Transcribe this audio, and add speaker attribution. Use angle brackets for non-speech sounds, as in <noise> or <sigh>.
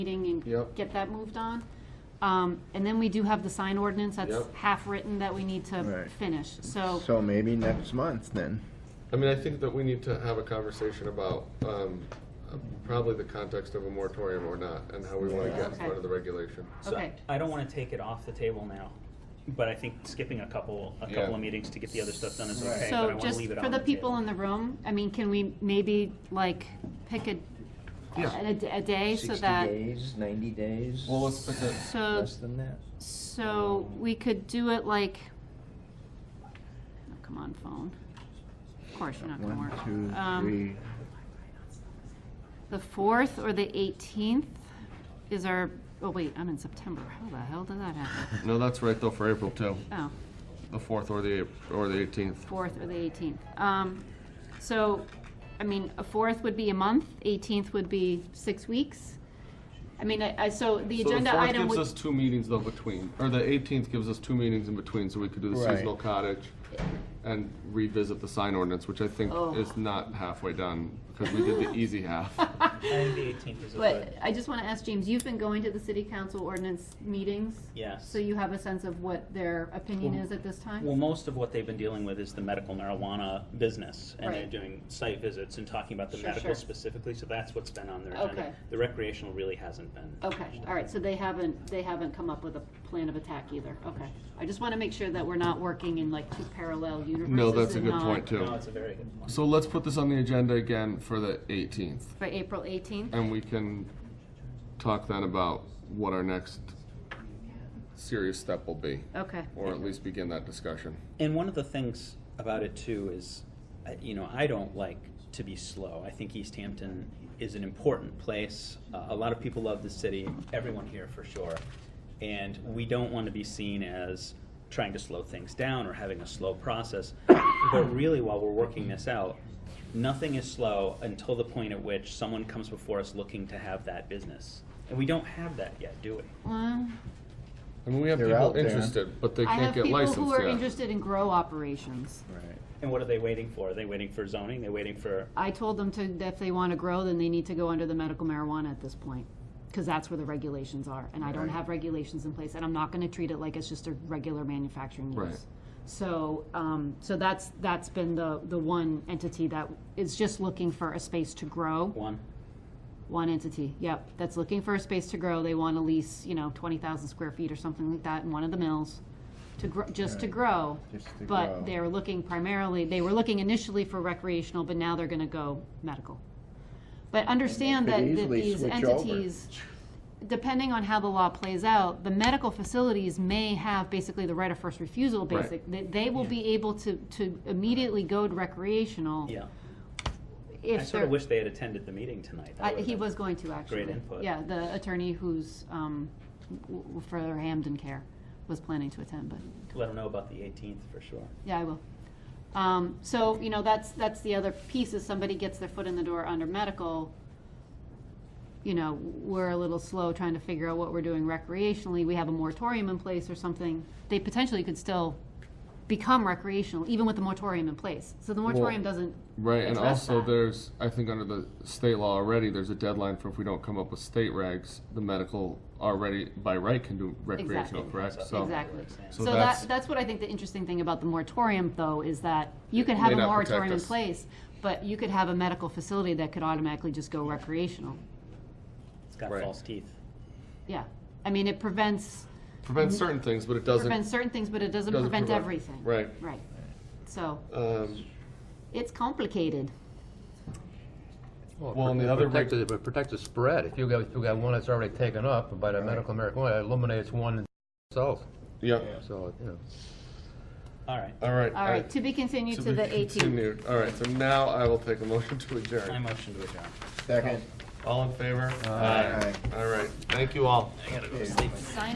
Speaker 1: meeting and
Speaker 2: Yep.
Speaker 1: get that moved on. Um, And then we do have the sign ordinance that's
Speaker 2: Yep.
Speaker 1: half-written that we need to
Speaker 3: Right.
Speaker 1: finish, so,
Speaker 3: So maybe next month then.
Speaker 2: I mean, I think that we need to have a conversation about um, probably the context of a moratorium or not, and how we want to get
Speaker 1: Okay.
Speaker 2: out of the regulation.
Speaker 4: So
Speaker 1: Okay.
Speaker 4: I don't want to take it off the table now, but I think skipping a couple, a
Speaker 2: Yeah.
Speaker 4: couple of meetings to get the other stuff done is okay, but I
Speaker 1: so
Speaker 4: want to
Speaker 1: just
Speaker 4: leave it
Speaker 1: for
Speaker 4: on
Speaker 1: the
Speaker 4: the
Speaker 1: people
Speaker 4: table.
Speaker 1: in the room, I mean, can we maybe, like, pick a, a d- a day so that,
Speaker 5: Sixty days, ninety days?
Speaker 2: Well, let's pick a-
Speaker 1: So-
Speaker 5: Less than that?
Speaker 1: so we could do it like, oh, come on, phone. Of course, you're not gonna
Speaker 3: One,
Speaker 1: work.
Speaker 3: two,
Speaker 1: Um,
Speaker 3: three.
Speaker 1: The 4th or the 18th is our, oh, wait, I'm in September. How the hell did that happen?
Speaker 2: No, that's right, though, for April, too,
Speaker 1: Oh,
Speaker 2: the 4th or the, or the 18th.
Speaker 1: 4th or the 18th. Um, So, I mean, a 4th would be a month, 18th would be six weeks. I mean, I, I- so the agenda item
Speaker 2: gives
Speaker 1: would,
Speaker 2: us two meetings, though, between, or the 18th gives us two meetings in between, so we could do the
Speaker 3: Right.
Speaker 2: seasonal cottage and revisit the sign ordinance, which I think
Speaker 1: Oh.
Speaker 2: is not halfway done, because we did
Speaker 1: <laughs>
Speaker 2: the easy half.
Speaker 4: And the eighteenth is
Speaker 1: but
Speaker 4: good.
Speaker 1: I just want to ask James, you've been going to the city council ordinance meetings?
Speaker 4: Yes.
Speaker 1: So you have a sense of what their opinion
Speaker 4: Well-
Speaker 1: is at this time?
Speaker 4: Well, most of what they've been dealing with is the medical marijuana business, and they're
Speaker 1: Right.
Speaker 4: doing site visits and talking about the
Speaker 1: Sure,
Speaker 4: medical
Speaker 1: sure.
Speaker 4: specifically, so that's what's been on their agenda.
Speaker 1: Okay.
Speaker 4: The recreational really hasn't been.
Speaker 1: Okay, all right, so they haven't, they haven't come up with a plan of attack either, okay. I just want to make sure that we're not working in like two parallel universes.
Speaker 2: No, that's a
Speaker 1: and
Speaker 2: good
Speaker 1: not-
Speaker 2: point, too.
Speaker 4: No, it's a very good point.
Speaker 2: So let's put this on the agenda again for the 18th.
Speaker 1: For April 18th?
Speaker 2: And we can talk then about what our next serious step will be,
Speaker 1: Okay,
Speaker 2: or at least begin that discussion.
Speaker 4: And one of the things about it too is, uh, you know, I don't like to be slow. I think East Hampton is an important place. Uh, a lot of people love the city, everyone here for sure. And we don't want to be seen as trying to slow things down or having a slow process. But really, while we're working this out, nothing is slow until the point at which someone comes before us looking to have that business. And we don't have that yet, do we?
Speaker 1: well,
Speaker 2: I mean, we have
Speaker 3: They're
Speaker 2: people
Speaker 3: out there.
Speaker 2: interested, but they
Speaker 1: I have
Speaker 2: can't get
Speaker 1: people
Speaker 2: licensed yet.
Speaker 1: who are interested in grow operations.
Speaker 3: Right.
Speaker 4: And what are they waiting for? Are they waiting for zoning? They're waiting for
Speaker 1: I told them to, that if they want to grow, then they need to go under the medical marijuana at this point, because that's where the regulations are, and I don't
Speaker 3: Right.
Speaker 1: have regulations in place, and I'm not going to treat it like it's just a regular manufacturing
Speaker 2: Right.
Speaker 1: use. So, um, so that's, that's been the, the one entity that is just looking for a space to grow.
Speaker 4: one.
Speaker 1: One entity, yep, that's looking for a space to grow. They want to lease, you know, twenty thousand square feet or something like that in one of the mills to grow, just to
Speaker 3: Right.
Speaker 1: grow.
Speaker 3: Just to
Speaker 1: But
Speaker 3: grow.
Speaker 1: they're looking primarily, they were looking initially for recreational, but now they're gonna go medical. But understand
Speaker 3: could
Speaker 1: that, that
Speaker 3: easily
Speaker 1: these
Speaker 3: switch over.
Speaker 1: entities, depending on how the law plays out, the medical facilities may have basically the right of first refusal,
Speaker 2: Right.
Speaker 1: basic. They, they will be able to, to immediately go to recreational.
Speaker 4: Yeah.
Speaker 1: if
Speaker 4: I sort of
Speaker 1: they're-
Speaker 4: wish they had attended the meeting tonight. That
Speaker 1: I-
Speaker 4: would've
Speaker 1: He
Speaker 4: been-
Speaker 1: was going to, actually.
Speaker 4: input.
Speaker 1: Yeah, the attorney who's, um, w- w- for Hamden Care was planning to attend, but,
Speaker 4: Let him know about the 18th for sure.
Speaker 1: yeah, I will. Um, So, you know, that's, that's the other piece, is somebody gets their foot in the door under medical, you know, we're a little slow trying to figure out what we're doing recreationally. We have a moratorium in place or something. They potentially could still become recreational, even with the moratorium in place. So the moratorium doesn't
Speaker 2: Right, and
Speaker 1: address
Speaker 2: also
Speaker 1: that.
Speaker 2: there's, I think under the state law already, there's a deadline for if we don't come up with state regs, the medical already by right can do recreational,
Speaker 1: Exactly.
Speaker 2: correct? So
Speaker 1: Exactly.
Speaker 2: So
Speaker 1: So
Speaker 2: that's-
Speaker 1: that, that's what I think the interesting thing about the moratorium, though, is that you could
Speaker 2: It
Speaker 1: have
Speaker 2: may
Speaker 1: a
Speaker 2: not protect
Speaker 1: moratorium in
Speaker 2: us.
Speaker 1: place, but you could have a medical facility that could automatically just go recreational.
Speaker 4: It's got
Speaker 2: Right.
Speaker 4: false teeth.
Speaker 1: Yeah. I mean, it prevents,
Speaker 2: Prevents certain things, but it doesn't.
Speaker 1: prevents certain things, but it doesn't
Speaker 2: doesn't
Speaker 1: prevent everything.
Speaker 2: Right.
Speaker 1: Right. So
Speaker 2: Um,
Speaker 1: it's complicated.
Speaker 2: Well, and the other
Speaker 6: Protect
Speaker 2: reg-
Speaker 6: the- but protect the spread. If you got, if you got one that's already taken up by the medical marijuana, it eliminates one itself.
Speaker 2: Yeah,
Speaker 6: So, you know.
Speaker 4: All right.
Speaker 2: all right.
Speaker 1: All right, to be continued to the 18th.
Speaker 2: eighteenth. <laughs> All right, so now I will take a motion to adjourn.
Speaker 4: I motion to adjourn.
Speaker 3: Second.
Speaker 2: All in favor?
Speaker 3: Aye.
Speaker 2: All right, thank you all.
Speaker 1: Sign